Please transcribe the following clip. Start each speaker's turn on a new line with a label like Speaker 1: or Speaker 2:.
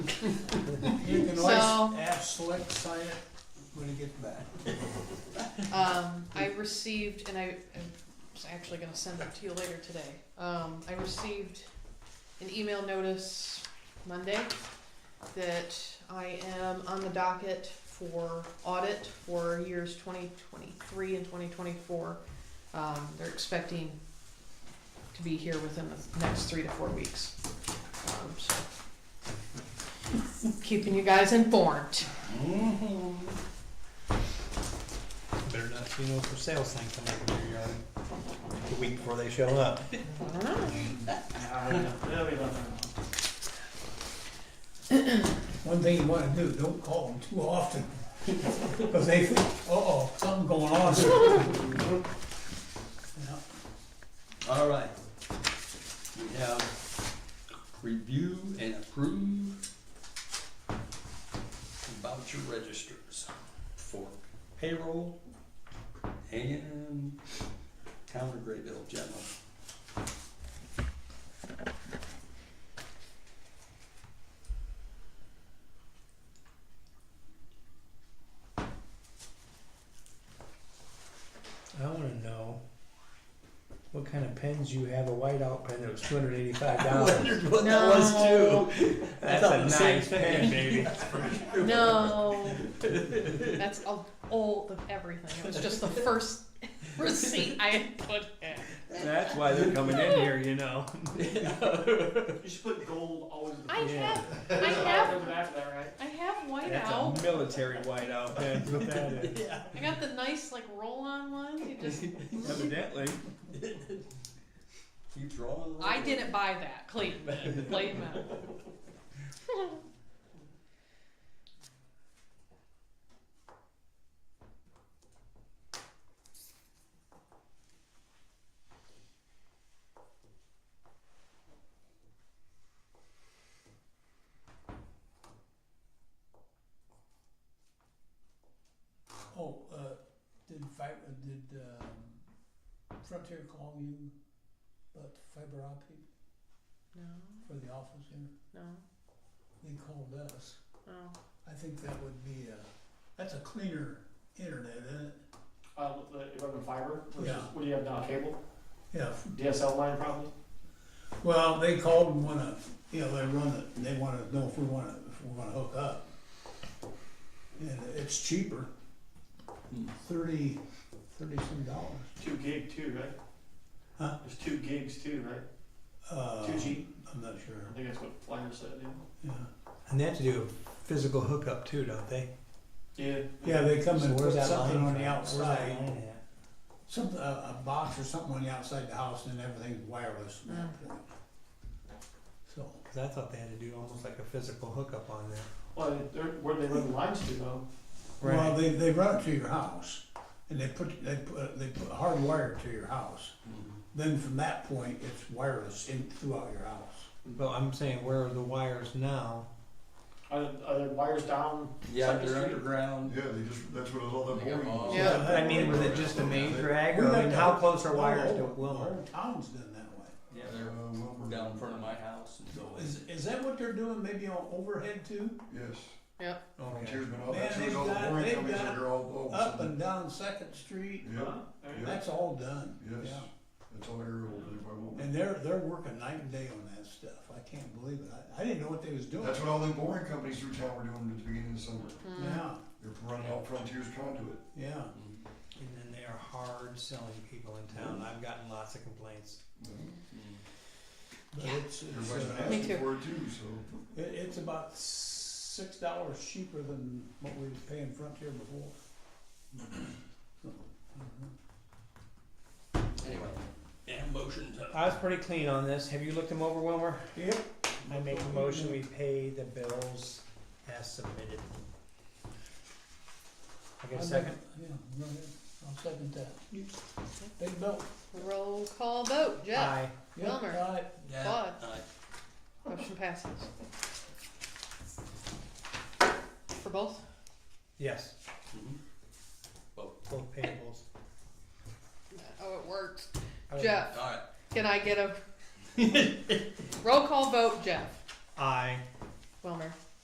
Speaker 1: You can
Speaker 2: So-
Speaker 1: always ask, select, sign it when it gets back.
Speaker 2: Um, I received, and I, I'm just actually gonna send it to you later today. Um, I received an email notice Monday that I am on the docket for audit for years twenty twenty-three and twenty twenty-four. Um, they're expecting to be here within the next three to four weeks. Um, so. Keeping you guys informed.
Speaker 3: Better not see no for sale sign coming up in your yard the week before they show up.
Speaker 2: I don't know.
Speaker 1: One thing you wanna do, don't call them too often, cause they think, uh-oh, something going on. Yeah.
Speaker 4: All right. We have review and approve voucher registers for payroll and town of Graybill general.
Speaker 3: I wanna know what kind of pens you have, a whiteout pen that was two hundred eighty-five dollars.
Speaker 4: what
Speaker 2: that was No.
Speaker 4: too.
Speaker 3: That's a nice pen, baby.
Speaker 2: No. That's all, all of everything. It was just the first receipt I had put in.
Speaker 3: That's why they're coming in here, you know.
Speaker 5: You should put gold always in the
Speaker 2: I
Speaker 5: front.
Speaker 2: have, I have,
Speaker 5: Doesn't matter that, right?
Speaker 2: I have white
Speaker 3: That's
Speaker 2: out.
Speaker 3: a military whiteout pen, that's what that is.
Speaker 2: I got the nice like roll-on ones. You just,
Speaker 3: Evidently.
Speaker 4: Keep drawing.
Speaker 2: I didn't buy that. Clayton did. Clayton. did.
Speaker 1: Oh, uh, did fiber, did, um, Frontier call you about the fiber optic
Speaker 2: No,
Speaker 1: for the office here?
Speaker 2: no,
Speaker 1: They called us.
Speaker 2: no.
Speaker 1: I think that would be a, that's a cleaner internet, isn't it?
Speaker 5: Uh, the, if I'm in fiber, which is,
Speaker 1: Yeah.
Speaker 5: what do you have now, cable?
Speaker 1: Yeah,
Speaker 5: DSL line probably?
Speaker 1: well, they called and wanna, you know, they run it, and they wanna know if we wanna, if we wanna hook up. And it's cheaper,
Speaker 5: Hmm.
Speaker 1: thirty, thirty-some dollars.
Speaker 5: Two gig too, right?
Speaker 1: Huh?
Speaker 5: There's two gigs too, right?
Speaker 1: Uh,
Speaker 5: Two G?
Speaker 1: I'm not sure,
Speaker 5: I think that's what Flyer said,
Speaker 1: yeah.
Speaker 3: And they have to do a physical hookup too, don't they?
Speaker 5: yeah. Yeah.
Speaker 1: Yeah, they come
Speaker 3: So
Speaker 1: and put
Speaker 3: where's that
Speaker 1: something on
Speaker 3: line from?
Speaker 1: the
Speaker 3: Where's that
Speaker 1: outside.
Speaker 3: line at?
Speaker 1: Something, a, a box or something on the outside the house and then everything's wireless from that point. So,
Speaker 3: Cause I thought they had to do almost like a physical hookup on that.
Speaker 5: Well, they're, where they run the lines to though,
Speaker 1: well, they, they run it to your house and they put, they put, uh, they put hardwire to your house. Then from that point, it's wireless in throughout your house.
Speaker 3: But I'm saying where are the wires now?
Speaker 5: are, are there wires down?
Speaker 4: Yeah,
Speaker 5: Second
Speaker 4: they're
Speaker 5: Street?
Speaker 4: underground.
Speaker 6: Yeah, they just, that's what all that
Speaker 4: They got
Speaker 6: boring was.
Speaker 2: Yeah.
Speaker 3: But I mean, was it just a main drag
Speaker 1: We
Speaker 3: or I
Speaker 1: got
Speaker 3: mean,
Speaker 1: the-
Speaker 3: how close are wires
Speaker 1: the
Speaker 3: to
Speaker 1: whole- The
Speaker 3: Wilma?
Speaker 1: whole town's done that way.
Speaker 4: Yeah,
Speaker 6: Uh,
Speaker 4: they're
Speaker 6: Wilbur.
Speaker 4: down in front of my house and so.
Speaker 1: Is, is that what they're doing, maybe on overhead too?
Speaker 6: Yes.
Speaker 2: Yep.
Speaker 3: Oh.
Speaker 6: Volunteers, but all
Speaker 1: Man,
Speaker 6: that,
Speaker 1: they've
Speaker 6: all the
Speaker 1: got-
Speaker 6: boring
Speaker 1: they've
Speaker 6: companies
Speaker 1: got
Speaker 6: that are all, all.
Speaker 1: Up and down Second Street,
Speaker 6: Yeah,
Speaker 5: Huh? There you go.
Speaker 1: that's all done,
Speaker 6: yes,
Speaker 1: yeah.
Speaker 6: that's all they're able to do by Wilbur.
Speaker 1: And they're, they're working night and day on that stuff. I can't believe it. I, I didn't know what they was doing.
Speaker 6: That's what all the boring companies through town were doing at the beginning of the summer.
Speaker 2: Mm.
Speaker 1: Yeah,
Speaker 6: They're running out Frontiers conduit.
Speaker 1: yeah.
Speaker 4: Mm-hmm.
Speaker 3: And then they are hard selling people in town. I've gotten lots of complaints.
Speaker 1: But it's, it's,
Speaker 6: Everybody's been
Speaker 1: uh,
Speaker 2: Me
Speaker 6: asking
Speaker 2: too.
Speaker 6: for it too, so.
Speaker 1: it, it's about six dollars cheaper than what we was paying Frontier before.
Speaker 3: Mm-hmm.
Speaker 1: So, mhm.
Speaker 4: Anyway, yeah, motions up.
Speaker 3: I was pretty clean on this. Have you looked them over, Wilmer?
Speaker 1: Yep,
Speaker 3: I make a motion, we pay the bills as submitted. I get a second?
Speaker 1: Yeah, go ahead. I'll second that. Big belt.
Speaker 2: Roll call vote. Jeff.
Speaker 3: Aye.
Speaker 1: Yep,
Speaker 2: Wilmer.
Speaker 1: right.
Speaker 4: Yeah.
Speaker 2: Bud.
Speaker 4: Aye.
Speaker 2: Motion passes. For both?
Speaker 3: Yes,
Speaker 4: Mhm.
Speaker 3: both payables.
Speaker 2: Oh, it worked.
Speaker 3: I would-
Speaker 2: Jeff.
Speaker 4: All right.
Speaker 2: Can I get a roll call vote, Jeff?
Speaker 3: Aye.
Speaker 2: Wilmer.